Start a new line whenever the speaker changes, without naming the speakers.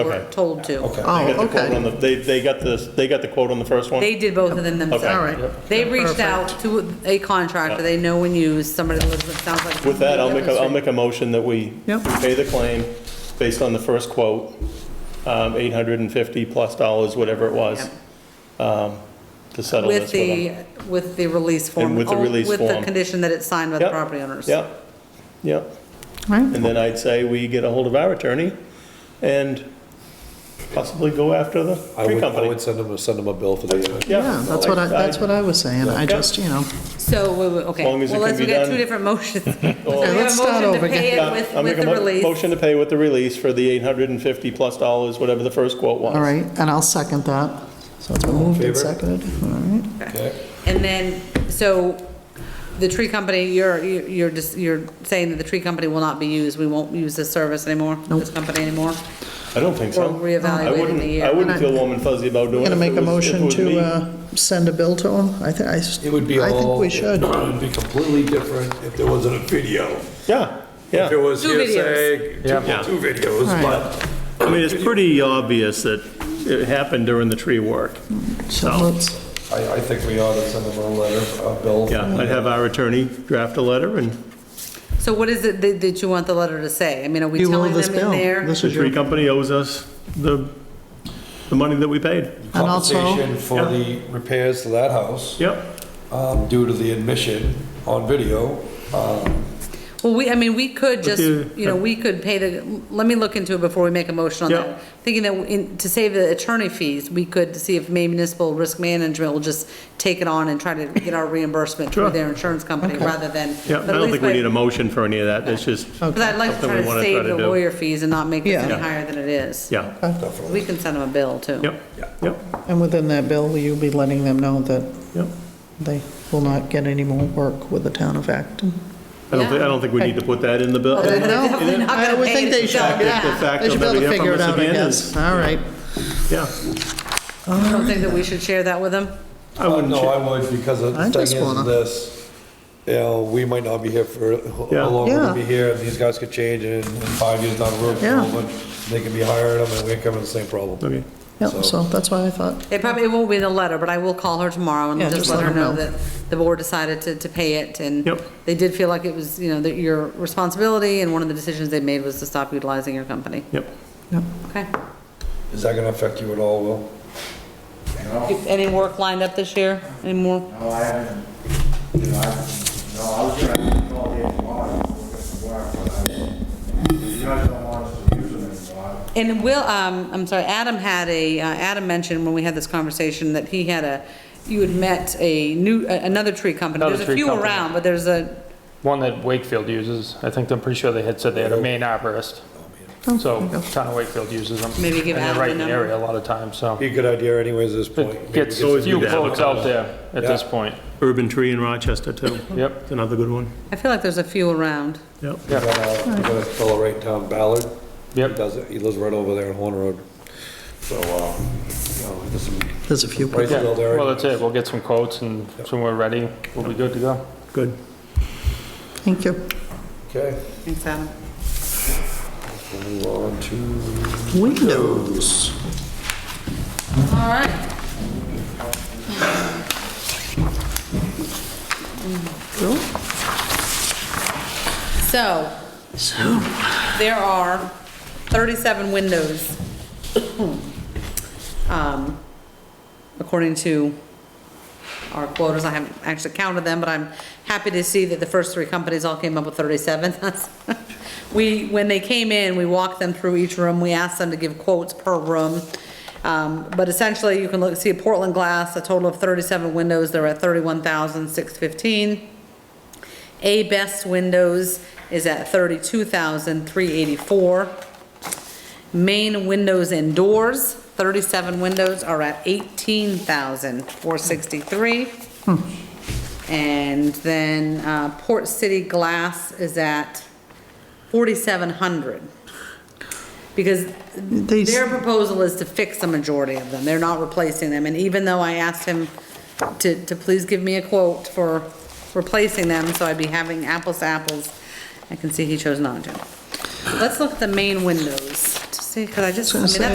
were
Okay.
told to.
Okay.
Oh,
They got the
okay.
quote on the- They, they got this, they got the quote on the first one?
They did both of them themselves.
All
right. Yep.
They reached out to a contractor they know and use, somebody that lives, it sounds like.
With that, I'll make, a will make a motion that we
Yep.
we pay the claim based on the first quote, um, 850 plus dollars, whatever it was,
Yep.
um, to settle
With
this with them.
the, with the release form.
And with the
Oh,
release
With the
form.
condition that it's signed by the
Yep.
property owners.
Yep, yep.
Right.
And then I'd say we get a hold of our attorney and possibly go after the
I
tree
would, I
company.
would send them, send them a bill for the,
Yeah, that's what I, that's what I was saying, I just, you know,
So, wait, wait, okay.
As long as it
Well,
can
let's, we
be
got
done.
two different motions.
Okay,
let's start over again.
We have a motion to pay it
I'll
with,
make
with
a
the
mo-
release.
Motion to pay with the release for the 850 plus dollars, whatever the first quote was.
all right, and I'll second that. So it's been moved and
favor?
seconded, all right.
okay?
And then, so the tree company, you're, you're just, you're saying that the tree company will not be used. We won't use this service anymore, this company anymore?
I don't think
Or
so.
reevaluate
I
in a
wouldn't-
year.
I wouldn't feel warm and fuzzy about doing it.
Going to
if
make
it
a
was- if it
motion
was me.
to uh, send a bill to them? I think, I, s-
It would be all.
I think we should.
It would be completely different if there wasn't a video.
Yeah,
If it
yeah.
was
Two videos.
hearsay, two
Yeah.
two videos,
Right.
but.
I mean, it's pretty obvious that it happened during the tree work.
So
So-
let's,
I, I think we ought to send them a letter, a bill.
Yeah, I'd have our attorney draft a letter and
So what is it that, that you want the letter to say? I mean, are we
you will
telling
this
them in
bill.
there?
This
the
is your,
tree company owes us the, the money that we paid.
And also-
Compensation for
Yeah.
the repairs to that house,
Yep,
um, due to the admission on video. Um,
Well, we, I mean, we could just,
you-
you know, we could pay the, let me look into it before we make a motion on
Yeah.
that. Thinking that in- to save the attorney fees, we could see if Maine Municipal Risk Management will just take it on and try to get our reimbursement through
Sure.
their insurance company rather than.
yep. I
but at
don't
least
think we
by-
need a motion for any of that. That's just,
Oh.
But I'd like to
something
try
we
to
wanna
save
try to
the
do.
lawyer fees and not make this any
Yeah.
higher than it is.
yeah,
Definitely.
We can send them a bill too.
yep, yep,
and within that bill, will you be letting them know that
yep.
they will not get any more work with the town of Acton?
I don't think, I don't think we need to put that in the bill.
Well, they're definitely not
I
gonna
would
pay
think
it
they should,
themselves.
The
yeah.
fact
They
of
should be able
that
to
we
figure
hear
it
from
out, I
Mr. Gannon
guess.
is-
All right,
Yeah,
I don't think that we should share that with them.
I wouldn't,
Uh, No,
cha-
I would, because the
I just
thing
wanna-
is this, you know, we might not be here for,
Yeah.
how long we're gonna be
Yeah.
here, and these guys could change, and in five years down the road,
Yeah.
someone- they could be hiring them, and we're coming to the same problem.
okay.
yeah, so that's why I thought,
It probably, it won't be in the letter, but I will call her tomorrow and
Yeah,
just let her know
know.
that the board decided to, to pay it, and
Yep.
they did feel like it was, you know, that your responsibility, and one of the decisions they made was to stop utilizing your company.
Yep.
yeah.
Okay.
Is that gonna affect you at all, Will?
Any work lined up this year? Any more?
No, I haven't, you know, I, no, I was gonna call Dave tomorrow, and we'll get some work, but I, if you guys don't want us to use them anymore.
And Will, um, I'm sorry, Adam had a, uh, Adam mentioned when we had this conversation that he had a, you had met a new, a- another tree company.
Another
There's a
tree
few
company.
around, but there's a,
One that Wakefield uses, I think, I'm pretty sure they had said they had a main arborist. So town of Wakefield uses them.
Maybe give Adam the
And they're right in the
number.
area a lot of times, so.
Be a good idea anyways at this point.
It
Maybe
gets
get some-
few
good to have a
quotes out there at this
Yeah. Hmm.
point.
Urban Tree in Rochester too.
Yep.
It's another good one.
I feel like there's a few around.
Yep.
You got a- you got a fellow right in town, Ballard. He
Yep.
does it, he lives right over there on Horn Road. So, uh, you know, there's some
There's a few people.
prices
Yeah,
out there.
well, that's it, we'll get some quotes and when we're ready, we'll be good to go.
Good.
Thank you.
Okay,
Thanks, Adam.
we'll move on to
Windows.
All right. So, there are 37 windows, um, according to our quotas. I haven't actually counted them, but I'm happy to see that the first three companies all came up with 37. That's- We, when they came in, we walked them through each room, we asked them to give quotes per room. Um, But essentially, you can look, see Portland Glass, a total of 37 windows, they're at 31,615. A Best Windows is at 32,384. Main windows and doors, 37 windows are at 18,463. And then uh, Port City Glass is at 4,700. Because
They s-
their proposal is to fix the majority of them, they're not replacing them. And even though I asked him to, to please give me a quote for replacing them, so I'd be having apples to apples, I can see he chose not to. Let's look at the main windows to see, because I just, I mean, that's
Gonna say,